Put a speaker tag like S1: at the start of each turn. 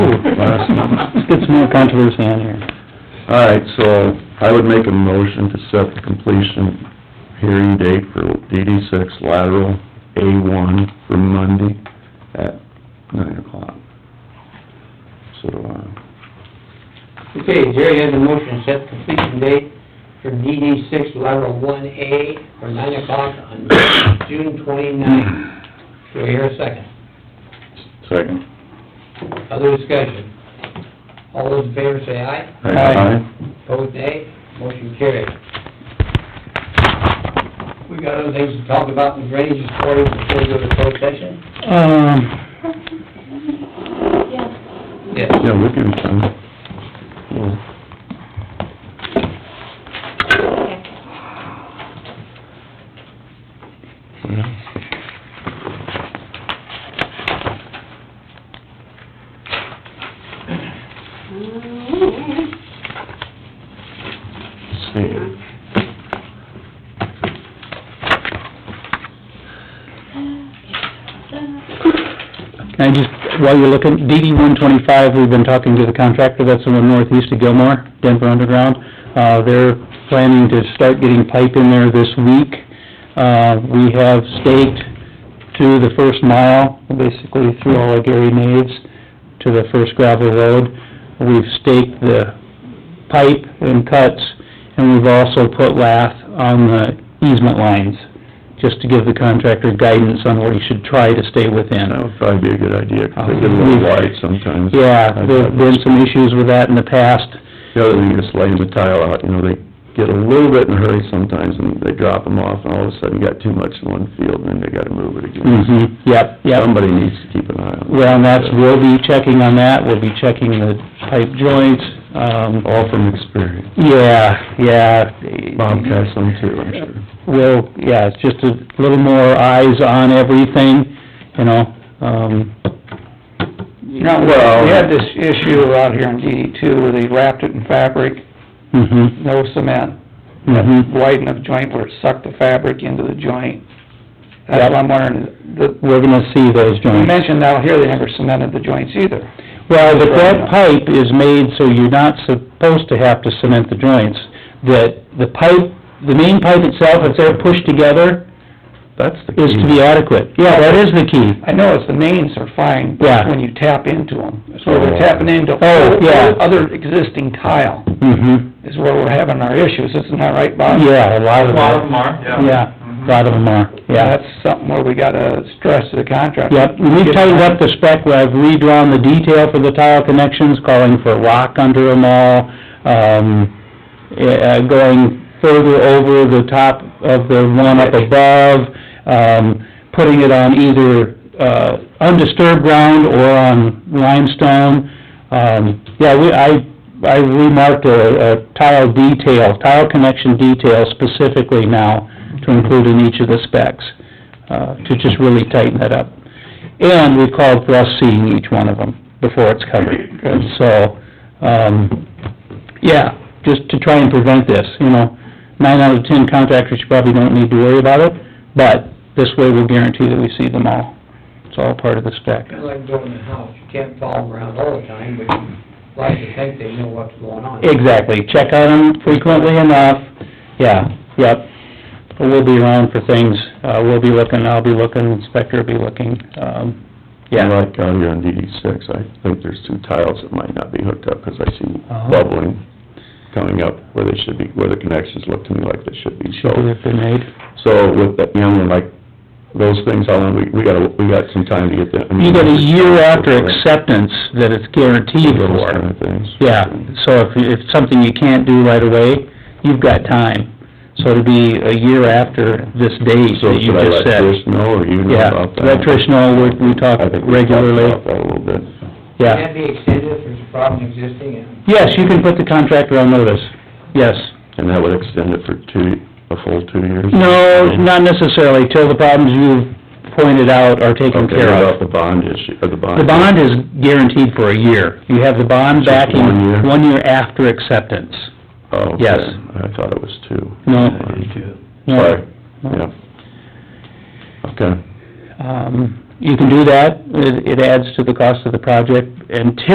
S1: Let's get some more controversy on here.
S2: All right, so I would make a motion to set the completion hearing date for DD six lateral A one for Monday at nine o'clock. So, uh,
S3: Okay, Jerry has a motion, set completion date for DD six lateral one A for nine o'clock on June twenty-ninth. Do I hear a second?
S2: second.
S3: Other discussion? All those in favor say aye,
S1: Aye.
S3: opposed nay, motion carried. We got other things to talk about in drainage authority before we go to closed session?
S1: Um,
S3: Yes.
S2: Yeah, we can, um, well, yeah. See.
S1: can I just, while you're looking, DD one twenty-five, we've been talking to the contractor, that's the one northeast of Gilmore, Denver Underground. Uh, they're planning to start getting pipe in there this week. Uh, we have staked to the first mile, basically through all of Gary Naves, to the first gravel road. We've staked the pipe and cuts, and we've also put lath on the easement lines, just to give the contractor guidance on what he should try to stay within.
S2: That would probably be a good idea, 'cause they get a little wide sometimes.
S1: Um, Yeah, there've been some issues with that in the past.
S2: The other thing is laying the tile out, you know, they get a little bit in a hurry sometimes, and they drop them off, and all of a sudden you got too much in one field, and then they gotta move it again.
S1: Mm-hmm, yep, yep.
S2: Somebody needs to keep an eye on it.
S1: Well, and that's, we'll be checking on that, we'll be checking the pipe joints, um,
S2: All from experience.
S1: yeah, yeah.
S2: Bob has some too, I'm sure.
S1: Well, yeah, it's just a little more eyes on everything, you know, um,
S4: No, well, we had this issue out here in DD two where they wrapped it in fabric,
S1: mhm,
S4: no cement,
S1: mhm.
S4: wide enough joint where it sucked the fabric into the joint. That's what I'm wondering, the,
S1: We're gonna see those
S4: you
S1: joints.
S4: mentioned out here they never cemented the joints either.
S1: Well, but that pipe is made so you're not supposed to have to cement the joints. That the pipe, the main pipe itself, if they're pushed together,
S2: That's the key.
S1: is to be adequate. Yeah, that is the key.
S4: I know it's the mains are fine
S1: Yeah.
S4: when you tap into them, so they're
S2: Oh.
S4: tapping into
S1: Oh, yeah.
S4: other existing tile
S1: Mm-hmm.
S4: is where we're having our issues, isn't that right, Bob?
S1: Yeah, a lot of
S5: lot of
S1: that.
S5: them are, yeah.
S1: Yeah, a lot of them are, yeah.
S4: That's something where we gotta stress to the contractor.
S1: Yep, we've tightened up the spec, where I've redrawn the detail for the tile connections, calling for rock under them all, um, eh, going further over the top of the one up above, um, putting it on either, uh, undisturbed ground or on limestone. Um, yeah, we, I, I remarked a, a tile detail, tile connection detail specifically now to include in each of the specs, uh, to just really tighten that up. And we called for us seeing each one of them before it's covered. And so, um, yeah, just to try and prevent this, you know. Nine out of ten contractors, you probably don't need to worry about it, but this way we'll guarantee that we see them all. It's all part of the spec.
S3: Kinda like building a house, you can't follow them around all the time, but you like to think they know what's going on.
S1: Exactly, check on them frequently enough, yeah, yep. We'll be around for things, uh, we'll be looking, I'll be looking, inspector will be looking, um, yeah.
S2: Like out here on DD six, I think there's two tiles that might not be hooked up, 'cause I see
S1: Uh-huh.
S2: bubbling coming up where they should be, where the connections look to me like they should be, so...
S1: Should be if they're made.
S2: So with that, you know, like, those things, how long, we, we gotta, we got some time to get that.
S1: You got a year after acceptance that it's guaranteed
S2: Those
S1: for.
S2: kind of things.
S1: Yeah, so if, if it's something you can't do right away, you've got time. So it'll be a year after this date
S2: So
S1: that you
S2: should I
S1: just
S2: let
S1: said.
S2: Trish know, or you know
S1: Yeah,
S2: about that?
S1: let Trish know, we, we talk
S2: I think we talked
S1: regularly,
S2: about that a little bit.
S1: yeah.
S3: Can that be extended if there's a problem existing and
S1: Yes, you can put the contractor on notice, yes.
S2: And that would extend it for two, a full two years?
S1: No, not necessarily, till the problems you've pointed out are taken
S2: Okay,
S1: care
S2: about the
S1: of.
S2: bond issue, or the bond?
S1: The bond is guaranteed for a year. You have the bond
S2: Just
S1: backing
S2: one year?
S1: one year after acceptance.
S2: Oh, okay.
S1: yes.
S2: I thought it was two.
S1: No. No.
S2: Sorry, yeah. Okay.
S1: Um, you can do that, it, it adds to the cost of the project until